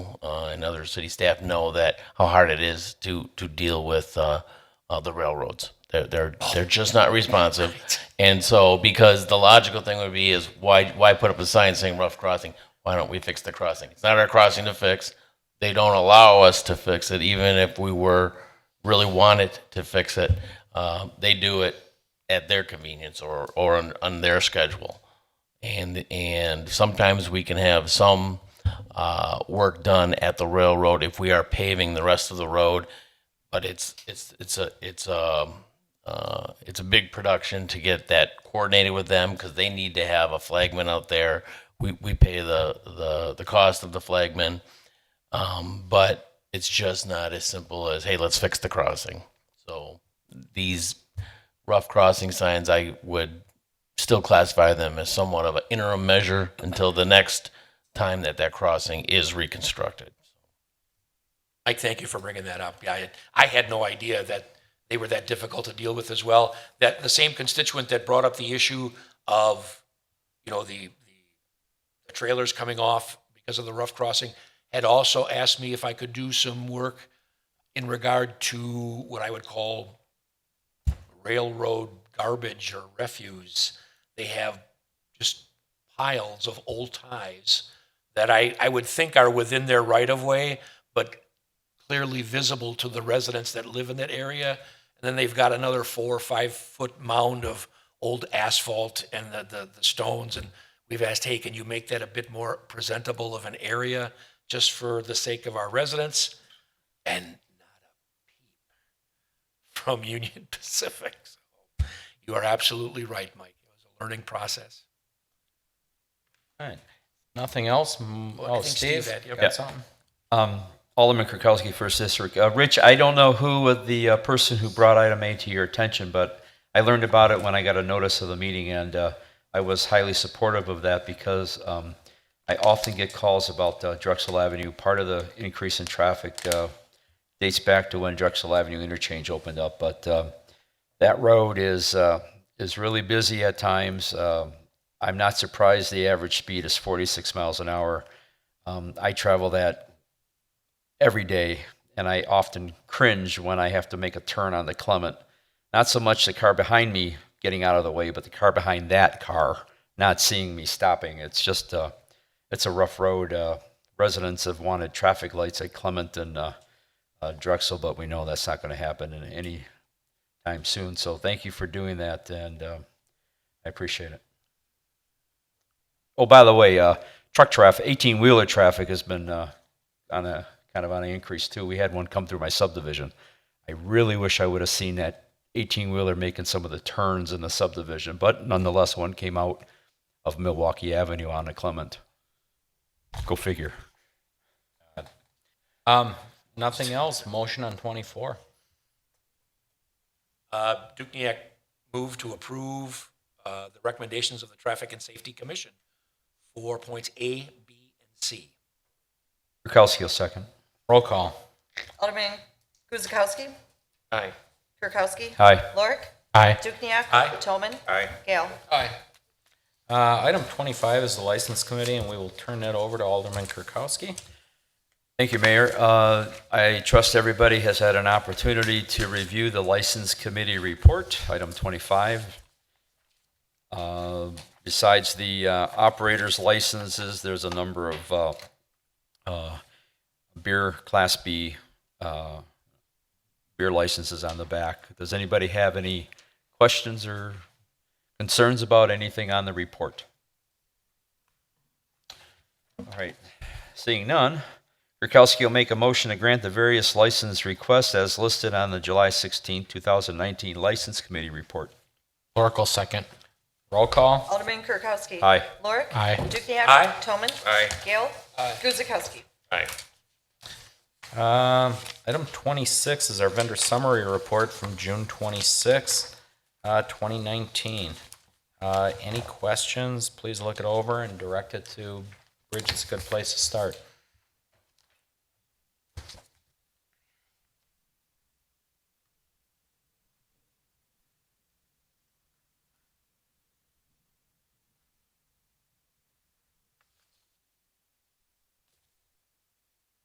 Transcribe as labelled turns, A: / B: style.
A: uh, and other city staff know that how hard it is to to deal with uh, uh, the railroads. They're they're they're just not responsive, and so because the logical thing would be is why why put up a sign saying rough crossing? Why don't we fix the crossing? It's not our crossing to fix. They don't allow us to fix it, even if we were really wanted to fix it. Uh, they do it at their convenience or or on, on their schedule and and sometimes we can have some uh, work done at the railroad if we are paving the rest of the road, but it's it's it's a it's a uh, it's a big production to get that coordinated with them because they need to have a flagman out there. We we pay the the the cost of the flagman, um, but it's just not as simple as hey let's fix the crossing. So these rough crossing signs, I would still classify them as somewhat of an interim measure until the next time that that crossing is reconstructed.
B: Mike, thank you for bringing that up. Yeah, I, I had no idea that they were that difficult to deal with as well. That the same constituent that brought up the issue of, you know, the, the trailers coming off because of the rough crossing had also asked me if I could do some work in regard to what I would call railroad garbage or refuse. They have just piles of old ties that I, I would think are within their right of way, but clearly visible to the residents that live in that area. And then they've got another four or five foot mound of old asphalt and the, the, the stones. And we've asked, hey, can you make that a bit more presentable of an area just for the sake of our residents? And not a peep from Union Pacific. So you are absolutely right, Mike. It was a learning process.
C: Alright, nothing else? M- Oh,
B: think
C: Steve?
B: Steve had- yep.
C: Got something?
D: Um, Alderman Kirkowski, First District. Uh, Rich, I don't know who was the uh, person who brought item A to your attention, but I learned about it when I got a notice of the meeting, and uh, I was highly supportive of that because um, I often get calls about uh, Drexel Avenue. Part of the increase in traffic uh, dates back to when Drexel Avenue interchange opened up, but uh, that road is uh, is really busy at times. Um I'm not surprised the average speed is 46 miles an hour. Um, I travel that every day, and I often cringe when I have to make a turn on the Clement. Not so much the car behind me getting out of the way, but the car behind that car not seeing me stopping. It's just, uh, it's a rough road. Uh, residents have wanted traffic lights at Clement and uh, uh, Drexel, but we know that's not going to happen in any time soon. So thank you for doing that, and uh, I appreciate it. Oh, by the way, uh, truck traffic, 18 wheeler traffic has been uh, on a kind of on an increase too. We had one come through my subdivision. I really wish I would have seen that 18 wheeler making some of the turns in the subdivision, but nonetheless, one came out of Milwaukee Avenue onto Clement. Go figure.
C: Um, nothing else? Motion on twenty-four?
B: Uh, Dukniak moved to approve uh, the recommendations of the Traffic and Safety Commission for points A, B, and C.
D: Kirkowski will second.
C: Roll call.
E: Alderman Guzekowski.
B: Aye.
E: Kirkowski.
D: Aye.
E: Lorik.
C: Aye.
E: Dukniak.
B: Aye.
E: Toman.
B: Aye.
E: Gale.
C: Aye. Uh, item twenty-five is the License Committee, and we will turn that over to Alderman Kirkowski.
D: Thank you, Mayor. Uh, I trust everybody has had an opportunity to review the License Committee Report, item 25. Uh, Besides the uh, operators' licenses, there's a number of uh, uh, beer Class B uh, beer licenses on the back. Does anybody have any questions or concerns about anything on the report? All right, seeing none, Kirkowski will make a motion to grant the various license requests as listed on the July 16, 2019 License Committee Report.
C: Lorik will second. Roll call.
E: Alderman Kirkowski.
D: Aye.
E: Lorik.
C: Aye.
E: Dukniak.
B: Aye.
E: Toman.
B: Aye.
E: Gale. Aye. Guzekowski.
C: Um, item twenty-six is our vendor summary report from June twenty-six, uh, twenty nineteen. Uh, any questions, please look it over and direct it to Bridget's a good place to start.